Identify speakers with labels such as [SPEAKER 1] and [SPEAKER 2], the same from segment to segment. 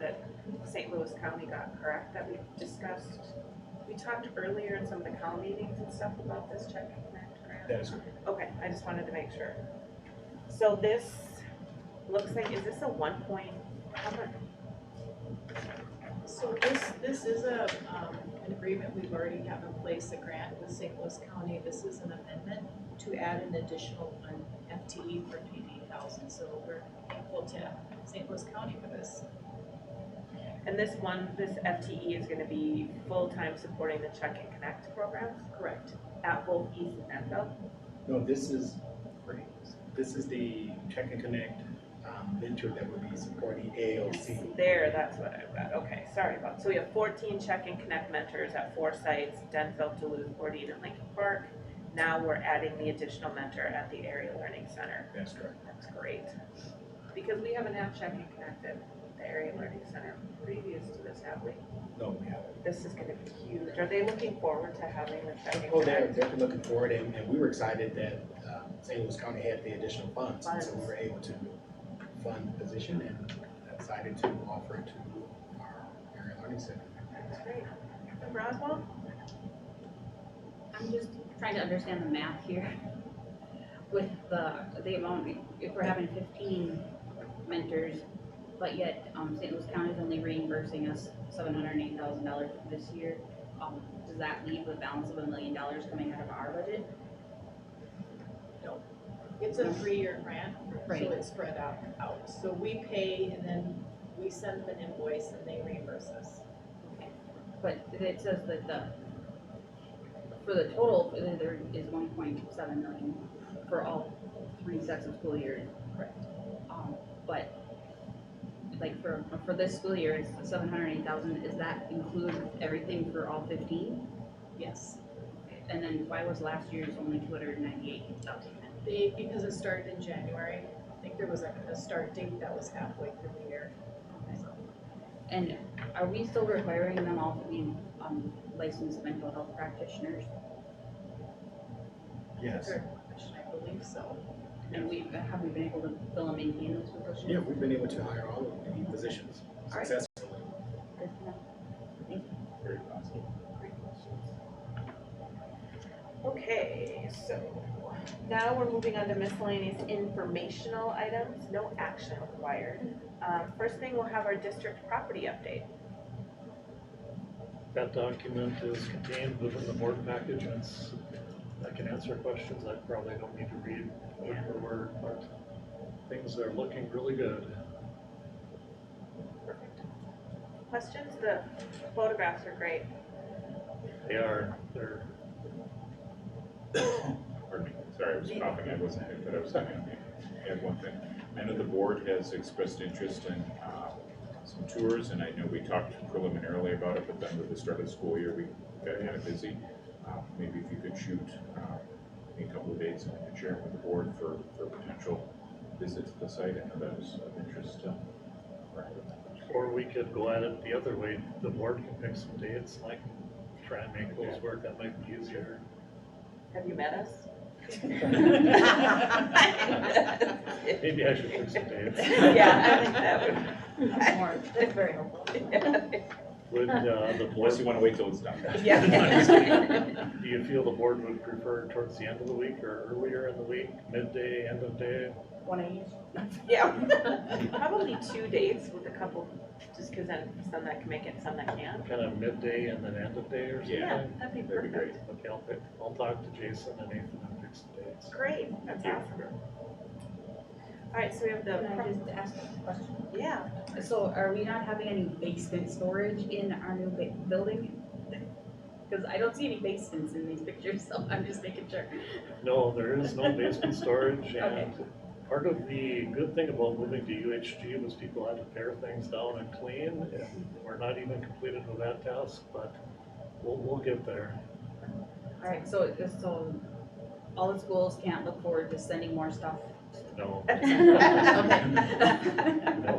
[SPEAKER 1] that St. Louis County got correct that we discussed? We talked earlier in some of the Cal meetings and stuff about this check and connect grant.
[SPEAKER 2] That is correct.
[SPEAKER 1] Okay, I just wanted to make sure. So this looks like, is this a one point, how much,
[SPEAKER 3] So this, this is a, um, an agreement we've already have in place, a grant with St. Louis County. This is an amendment to add an additional um, FTE for PD thousand, so we're thankful to St. Louis County for this.
[SPEAKER 1] and this one, this FTE is gonna be full-time supporting the check and connect programs
[SPEAKER 3] Correct.
[SPEAKER 1] at both East and Enfield?
[SPEAKER 2] No, this is, this is the Check and Connect um, venture that would be supporting AOC.
[SPEAKER 1] There, that's what I've got, okay, sorry about, so we have fourteen check and connect mentors at four sites, Denfeld, Duluth, Fordine, and Lincoln Park. Now we're adding the additional mentor at the area learning center,
[SPEAKER 2] That's correct.
[SPEAKER 1] that's great. Because we haven't had check and connect at the area learning center previous to this, have we?
[SPEAKER 2] No, we haven't.
[SPEAKER 1] This is gonna be huge, are they looking forward to having the check and
[SPEAKER 2] Oh, they're
[SPEAKER 1] connect?
[SPEAKER 2] definitely looking forward and, and we were excited that um, St. Louis County had the additional funds. And so we were able to fund the position and decided to offer it to our area learning center.
[SPEAKER 1] That's great. Captain Broswell?
[SPEAKER 4] I'm just trying to understand the math here. With the, the amount, if we're having fifteen mentors, but yet, um, St. Louis County is only reimbursing us seven hundred and eight thousand dollars this year. Um, does that leave a balance of a million dollars coming out of our budget?
[SPEAKER 3] It's a three-year grant,
[SPEAKER 4] Right.
[SPEAKER 3] so it's spread out, out. So we pay and then we send them an invoice and they reimburse us.
[SPEAKER 4] But it says that the, for the total, there is one point seven million for all three sets of school years.
[SPEAKER 3] Correct.
[SPEAKER 4] Um, but, like, for, for this school year, it's seven hundred and eight thousand, does that include everything for all fifteen?
[SPEAKER 3] Yes,
[SPEAKER 4] And then why was last year's only two hundred and ninety-eight thousand?
[SPEAKER 3] they, because it started in January, I think there was a, a start date that was halfway through the year. So
[SPEAKER 4] And are we still requiring them all to be, um, licensed mental health practitioners?
[SPEAKER 2] Yes.
[SPEAKER 3] Third question, I believe so.
[SPEAKER 4] And we, have we been able to fill and maintain those positions?
[SPEAKER 2] Yeah, we've been able to hire all of the positions
[SPEAKER 4] All right.
[SPEAKER 2] successfully.
[SPEAKER 4] Good to know.
[SPEAKER 2] Very possible.
[SPEAKER 1] Okay, so now we're moving on to miscellaneous informational items, no action required. Um, first thing, we'll have our district property update.
[SPEAKER 5] That document is contained within the board package and it's, I can answer questions I probably don't need to read word for word, but things are looking really good.
[SPEAKER 1] Perfect. Questions? The photographs are great.
[SPEAKER 5] They are, they're,
[SPEAKER 6] Pardon me, sorry, I was coughing, I wasn't, here, but I was gonna add one thing. I know the board has expressed interest in, uh, some tours, and I know we talked preliminarily about it, but then with the start of the school year, we got kind of busy. Uh, Maybe if you could shoot, uh, a couple of dates, and I could share it with the board for, for potential visit to the site, I know that was of interest to.
[SPEAKER 5] or we could go at it the other way, the board can pick some dates, and I can try and make those work, that might be easier.
[SPEAKER 1] Have you met us?
[SPEAKER 5] Maybe I should pick some dates.
[SPEAKER 1] Yeah, I think that would.
[SPEAKER 3] That's more, that's very helpful.
[SPEAKER 5] Would, uh, the
[SPEAKER 6] Unless you
[SPEAKER 5] board,
[SPEAKER 6] wanna wait till it's done.
[SPEAKER 1] Yeah.
[SPEAKER 5] do you feel the board would prefer towards the end of the week or earlier in the week, midday, end of day?
[SPEAKER 4] One of each?
[SPEAKER 1] Yeah. Probably two dates with a couple, just because then some that can make it, some that can't.
[SPEAKER 5] kind of midday and then end of day or something?
[SPEAKER 6] Yeah.
[SPEAKER 1] That'd be
[SPEAKER 6] That'd be
[SPEAKER 1] perfect.
[SPEAKER 6] great.
[SPEAKER 5] Okay, I'll pick, I'll talk to Jason and Nathan and pick some dates.
[SPEAKER 1] Great, that's awesome. All right, so we have
[SPEAKER 4] Can I
[SPEAKER 1] the,
[SPEAKER 4] just ask a question?
[SPEAKER 1] yeah,
[SPEAKER 4] So are we not having any basement storage in our new ba- building? Cause I don't see any basements in these pictures, so I'm just making sure.
[SPEAKER 5] No, there is no basement storage
[SPEAKER 4] Okay.
[SPEAKER 5] and part of the good thing about moving to UHG was people had to pare things down and clean. and We're not even completed with that task, but we'll, we'll get there.
[SPEAKER 4] Alright, so it just, so all the schools can't look forward to sending more stuff.
[SPEAKER 5] No,
[SPEAKER 4] Okay.
[SPEAKER 5] no,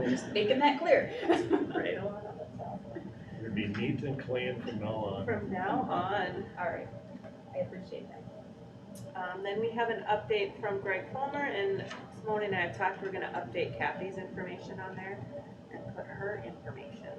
[SPEAKER 4] Just Making that clear.
[SPEAKER 1] right
[SPEAKER 5] it'd be neat and clean from now on.
[SPEAKER 1] from now on.
[SPEAKER 4] Alright, I appreciate that.
[SPEAKER 1] Um, then we have an update from Greg Palmer and Simone and I have talked, we're gonna update Kathy's information on there and put her information